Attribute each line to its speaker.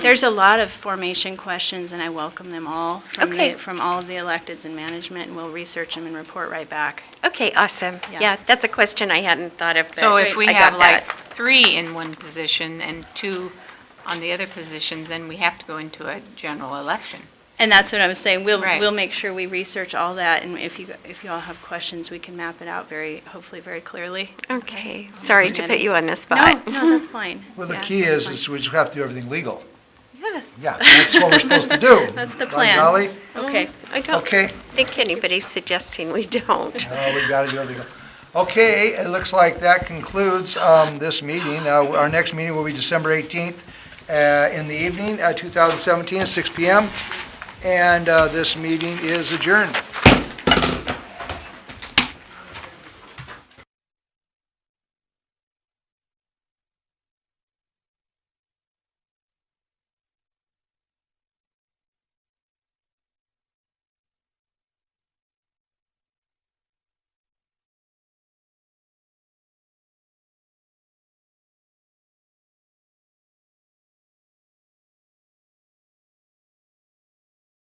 Speaker 1: There's a lot of formation questions, and I welcome them all from
Speaker 2: Okay.
Speaker 1: the, from all of the electeds and management, and we'll research them and report right back.
Speaker 2: Okay, awesome.
Speaker 1: Yeah.
Speaker 2: Yeah, that's a question I hadn't thought of, but
Speaker 3: So if we
Speaker 2: I
Speaker 3: have
Speaker 2: got
Speaker 3: like
Speaker 2: that.
Speaker 3: three in one position and two on the other position, then we have to go into a general election.
Speaker 1: And that's what I was saying, we'll,
Speaker 3: Right.
Speaker 1: we'll make sure we research all that, and if you, if you all have questions, we can map it out very, hopefully very clearly.
Speaker 2: Okay, sorry to put you on
Speaker 1: No,
Speaker 2: the spot.
Speaker 1: no, that's fine.
Speaker 4: Well, the
Speaker 1: Yeah,
Speaker 4: key
Speaker 1: that's
Speaker 4: is,
Speaker 1: fine.
Speaker 4: is we just have to do everything legal.
Speaker 1: Yes.
Speaker 4: Yeah, that's what we're supposed to do.
Speaker 1: That's the
Speaker 4: By
Speaker 1: plan.
Speaker 4: golly.
Speaker 1: Okay.
Speaker 2: I don't
Speaker 4: Okay,
Speaker 2: think anybody's suggesting we don't.
Speaker 4: no, we gotta do it legal. Okay, it looks like that concludes, um, this meeting. Uh, our next meeting will be December eighteenth, uh, in the evening, uh, two thousand seventeen, six P M. And, uh, this meeting is adjourned.